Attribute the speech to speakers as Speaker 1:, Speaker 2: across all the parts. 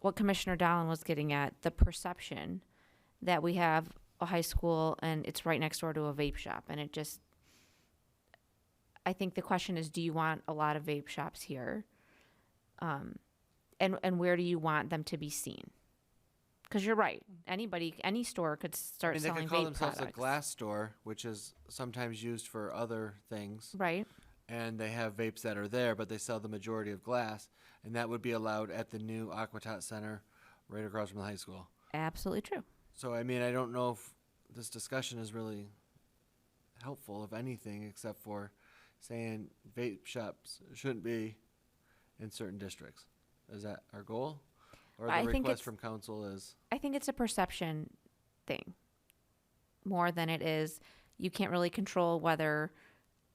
Speaker 1: what Commissioner Dowling was getting at, the perception that we have a high school and it's right next door to a vape shop, and it just, I think the question is, do you want a lot of vape shops here? Um, and and where do you want them to be seen? Because you're right, anybody, any store could
Speaker 2: I
Speaker 1: start
Speaker 2: mean, they
Speaker 1: selling
Speaker 2: could call
Speaker 1: vape
Speaker 2: themselves a
Speaker 1: products.
Speaker 2: glass store, which is sometimes used for other things.
Speaker 1: Right,
Speaker 2: And they have vapes that are there, but they sell the majority of glass. And that would be allowed at the new Aquatot Center right across from the high school.
Speaker 1: absolutely true.
Speaker 2: So, I mean, I don't know if this discussion is really helpful, if anything, except for saying vape shops shouldn't be in certain districts. Is that our goal? Or
Speaker 1: I
Speaker 2: the
Speaker 1: think
Speaker 2: request
Speaker 1: it's-
Speaker 2: from council is,
Speaker 1: I think it's a perception thing more than it is. You can't really control whether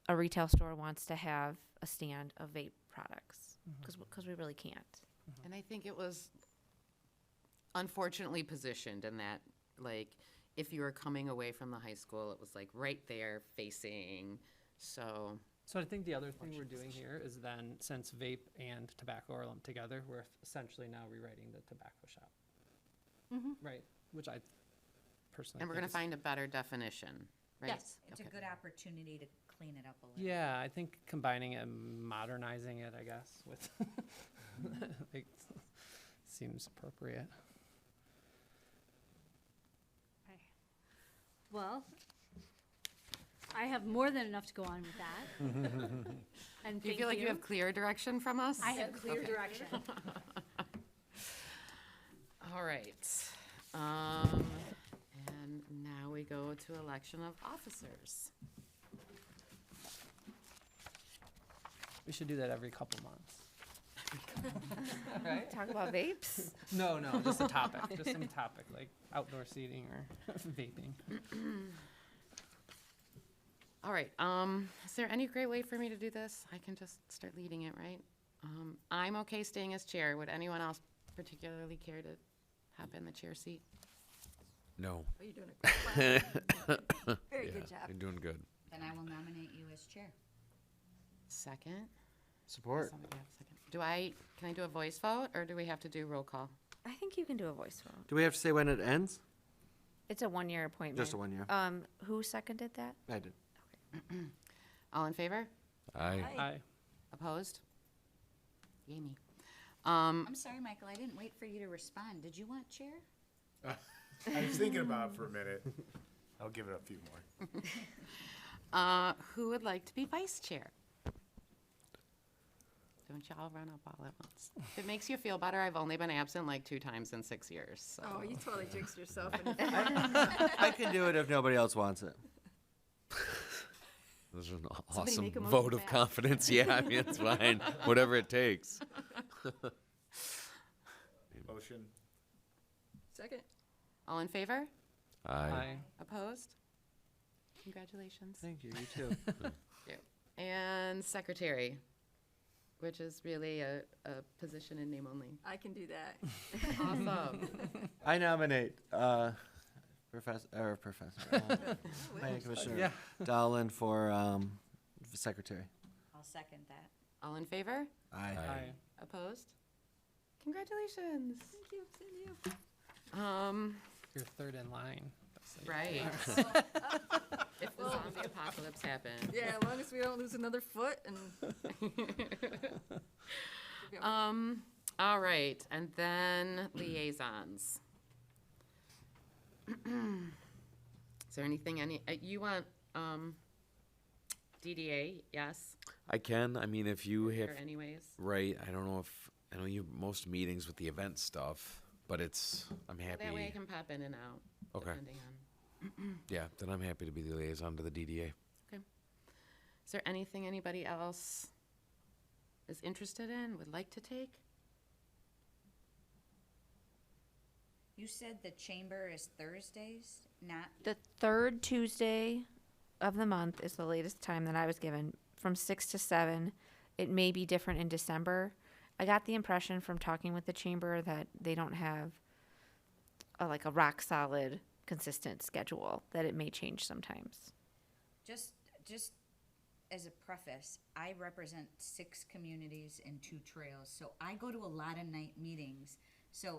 Speaker 1: a retail store wants to have a stand of vape products because we really can't.
Speaker 3: And I think it was unfortunately positioned in that, like, if you were coming away from the high school, it was like right there facing, so.
Speaker 4: So I think the other thing we're doing here is then, since vape and tobacco are lumped together, we're essentially now rewriting the tobacco shop. Right, which I personally.
Speaker 3: And we're
Speaker 4: think
Speaker 3: gonna
Speaker 4: is-
Speaker 3: find a better definition, right?
Speaker 5: Yes, it's a
Speaker 3: Okay.
Speaker 5: good opportunity to clean it up a little.
Speaker 4: Yeah, I think combining it and modernizing it, I guess, with, it seems appropriate.
Speaker 6: Well, I have more than enough to go on with that. And
Speaker 3: Do you
Speaker 6: thank
Speaker 3: feel like you
Speaker 6: you.
Speaker 3: have clear direction from us?
Speaker 6: I have clear direction.
Speaker 3: All right. Um, and now we go to election of officers.
Speaker 4: We should do that every couple months. Right?
Speaker 1: Talk about vapes.
Speaker 4: No, no, just a topic, just some topic, like outdoor seating or vaping.
Speaker 3: All right, um, is there any great way for me to do this? I can just start leading it, right? Um, I'm okay staying as chair. Would anyone else particularly care to hop in the chair seat?
Speaker 7: No.
Speaker 5: Are you Oh, doing a great job? Very
Speaker 7: yeah,
Speaker 5: good job.
Speaker 7: You're doing good.
Speaker 5: Then I will nominate you as chair.
Speaker 3: Second?
Speaker 2: support.
Speaker 3: Somebody have a second? Do I, can I do a voice vote, or do we have to do roll call?
Speaker 1: I think you can do a voice vote.
Speaker 2: Do we have to say when it ends? Oh.
Speaker 1: It's a one year appointment.
Speaker 2: Just a one year.
Speaker 1: Um, who seconded that?
Speaker 2: I did.
Speaker 3: All in favor?
Speaker 7: I
Speaker 4: I,
Speaker 3: Opposed? Yay me. Um,
Speaker 5: I'm sorry, Michael, I didn't wait for you to respond. Did you want chair?
Speaker 8: I was thinking about it for a minute. I'll give it a few more.
Speaker 3: uh, who would like to be vice chair? Don't y'all run up all at once. If it makes you feel better, I've only been absent like two times in six years, so.
Speaker 5: you totally jinxed yourself.
Speaker 2: I can do it if nobody else wants it.
Speaker 7: This is an
Speaker 5: make a
Speaker 7: awesome
Speaker 5: motion
Speaker 7: vote of
Speaker 5: fast.
Speaker 7: confidence. Yeah, I mean, it's fine. Whatever it takes.
Speaker 8: Motion.
Speaker 5: Second.
Speaker 3: All in favor?
Speaker 7: I
Speaker 4: I,
Speaker 3: Opposed? Congratulations.
Speaker 2: Thank you, you too.
Speaker 3: And secretary, which is really a, a position in name only.
Speaker 5: I can do that.
Speaker 3: Awesome.
Speaker 2: I nominate uh, Professor, or Professor, uh, Planning Commissioner
Speaker 4: yeah.
Speaker 2: Dowlin for um, Secretary.
Speaker 5: I'll second that.
Speaker 3: All in favor?
Speaker 2: Aye.
Speaker 4: I,
Speaker 3: Opposed? Congratulations.
Speaker 5: Thank you, thank you.
Speaker 3: Um,
Speaker 4: you're third in line. That's like-
Speaker 3: right. If the zombie apocalypse happened.
Speaker 9: Yeah, as long as we don't lose another foot and.
Speaker 3: Um, all right, and then liaisons. Is there anything, any, uh, you want, um, DDA, yes,
Speaker 7: I can. I mean, if you have
Speaker 3: or anyways?
Speaker 7: right, I don't know if I know you have most meetings with the event stuff, but it's I'm happy.
Speaker 3: That way I can pop in and out,
Speaker 7: okay.
Speaker 3: depending on.
Speaker 7: Yeah, then I'm happy to be the liaison to the DDA.
Speaker 3: Is there anything anybody else is interested in, would like to take?
Speaker 5: You said the chamber is Thursdays, not,
Speaker 1: The third Tuesday of the month is the latest time that I was given, from six to seven. It may be different in December. I got the impression from talking with the chamber that they don't have a, like a rock solid, consistent schedule, that it may change sometimes.
Speaker 5: just, just as a preface, I represent six communities and two trails, so I go to a lot of night meetings. So